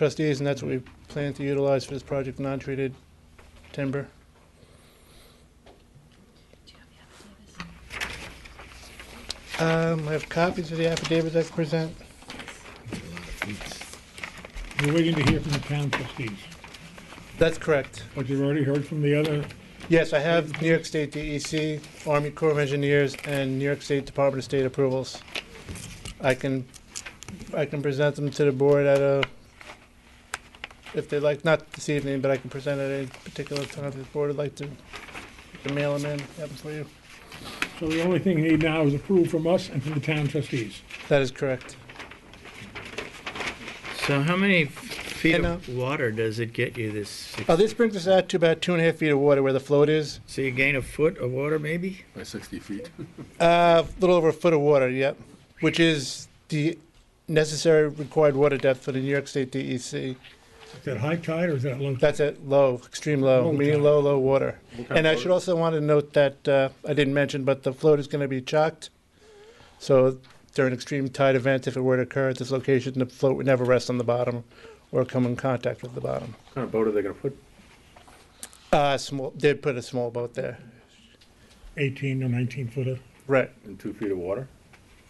trustees, and that's what we plan to utilize for this project, non-treated timber. Um, I have copies of the affidavits I can present. We're waiting to hear from the town trustees, That's correct. but you've already heard from the other, Yes, I have New York State DEC, Army Corps of Engineers, and New York State Department of State approvals. I can, I can present them to the board at a, if they'd like, not this evening, but I can present at a particular time if the board would like to, to mail them in, have them for you. so the only thing you need now is approval from us and from the town trustees. That is correct. So how many f- feet And, of water does it get you Oh, this? six- Uh, this brings us out to about two and a half feet of water where the float is. So you gain a foot of water maybe? by 60 feet. Uh, a little over a foot of water, yep, which is the necessary required water depth for the New York State E DEC. Is that high tide or is that low? tide? That's at low, extreme low, Low meaning tide. low, low water. kind And of I should also want to note that, uh, I didn't mention, but the float is going to be chalked. So during extreme tide events, if it were to occur at this location, the float would never rest on the bottom or come in contact with the bottom. What kind of boat are they going to put? Uh, small, did put a small boat there. Eighteen or nineteen footer? Right. In two feet of water?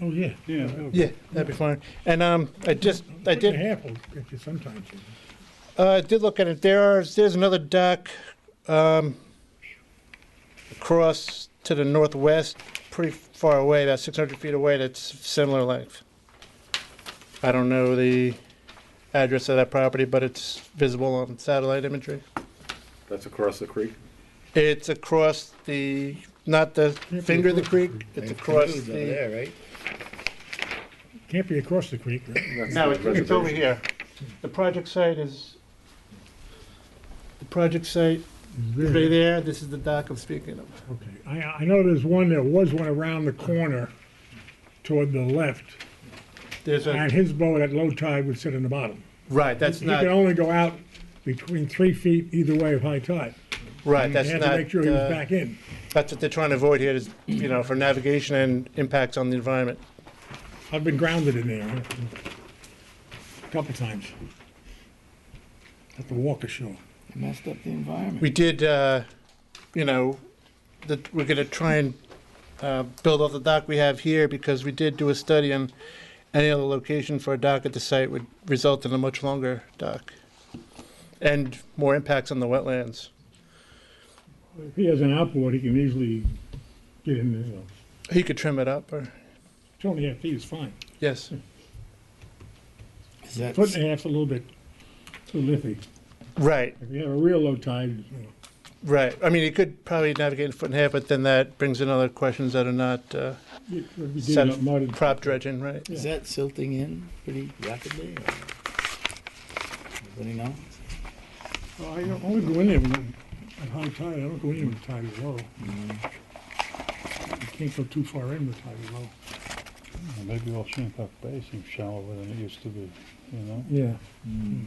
Oh, yeah. Yeah. Yeah, that'd be fine. And, um, I just, I Foot and a did, half will get you sometimes. uh, I did look at it. There are, there's another dock, um, across to the northwest, pretty far away, about 600 feet away, that's similar length. I don't know the address of that property, but it's visible on satellite imagery. That's across the creek? It's across the, not the finger of the creek, it's across the, there, right? Can't be across the creek, right? That's no, the it's it's over reservation. here. The project site is, the project site is right there, this is the dock I'm speaking of. Okay, I, I know there's one, there was one around the corner toward the left, There's a, and his boat at low tide would sit in the bottom. right, that's You can not, only go out between three feet either way of high tide. right, that's You not. had to make sure he was uh, back in. That's what they're trying to avoid here is, you know, for navigation and impacts on the environment. I've been grounded in there a couple times. Have to walk ashore. Messed up the environment. We did, uh, you know, that we're gonna try and, uh, build off the dock we have here because we did do a study on any other location for a dock at the site would result in a much longer dock and more impacts on the wetlands. If he has an outboard, he can easily get in there. He could trim it up or, Two and a half feet is fine. yes. Is that, Foot and a half's a little bit too lithy. Right, If you have a real low tide, you know, right. I mean, he could probably navigate in a foot and a half, but then that brings in other questions that are not, uh, you would be Set digging up mud. and- prop dredging, right? is that silting in pretty rapidly? or- Anybody know? Well, I don't- only go in there when, at high tide, I don't go in there when the tide is low. You can't go too far in with tide is low. Mm-hmm. Well, Maybe all Shinnecock Bay seems shallower than it used to be, you know? Mm-hmm. Yeah.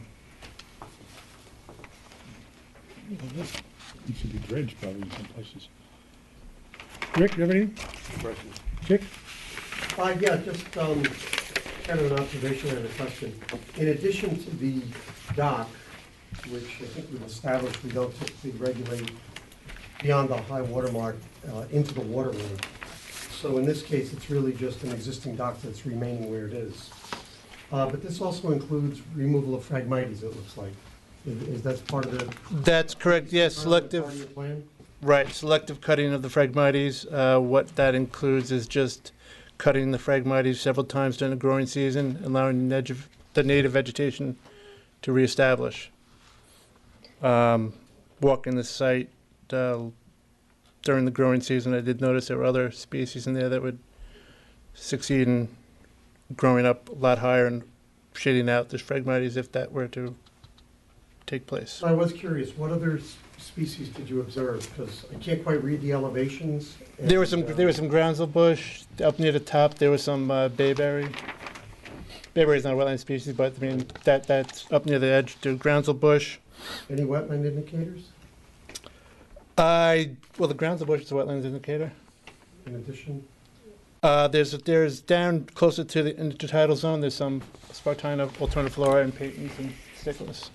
It should be dredged probably in some places. Rick, you have anything? Dick? Uh, yeah, just, um, kind of an observation and a question. In addition to the dock, which I think we've established, we don't typically regulate beyond the high water mark, uh, into the waterway. So in this case, it's really just an existing dock that's remaining where it is. Uh, but this also includes removal of fragmites, it looks like. Is, is that part of the? That's correct, yes, part of selective, your plan? right, selective cutting of the Phragmites. Uh, What that includes is just cutting the Phragmites several times during the growing season, allowing the neg- the native vegetation to reestablish. Um, Walking the site uh, during the growing season, I did notice there were other species in there that would succeed in growing up a lot higher and shading out the Phragmites if that were to take place. So I was curious, what other s- species did you observe? Because I can't quite read the elevations. There was some and, uh, there was some groundsel bush up near the top. There was some uh, bayberry. Bayberry is not a wetland species, but I mean that that's up near the edge. The groundsel bush. Any wetland indicators I well the groundsel bush is a wetlands indicator. in addition? Uh, there's there's down closer to the intertidal zone. There's some spartina, alternate flora, and patents and Ridiculous.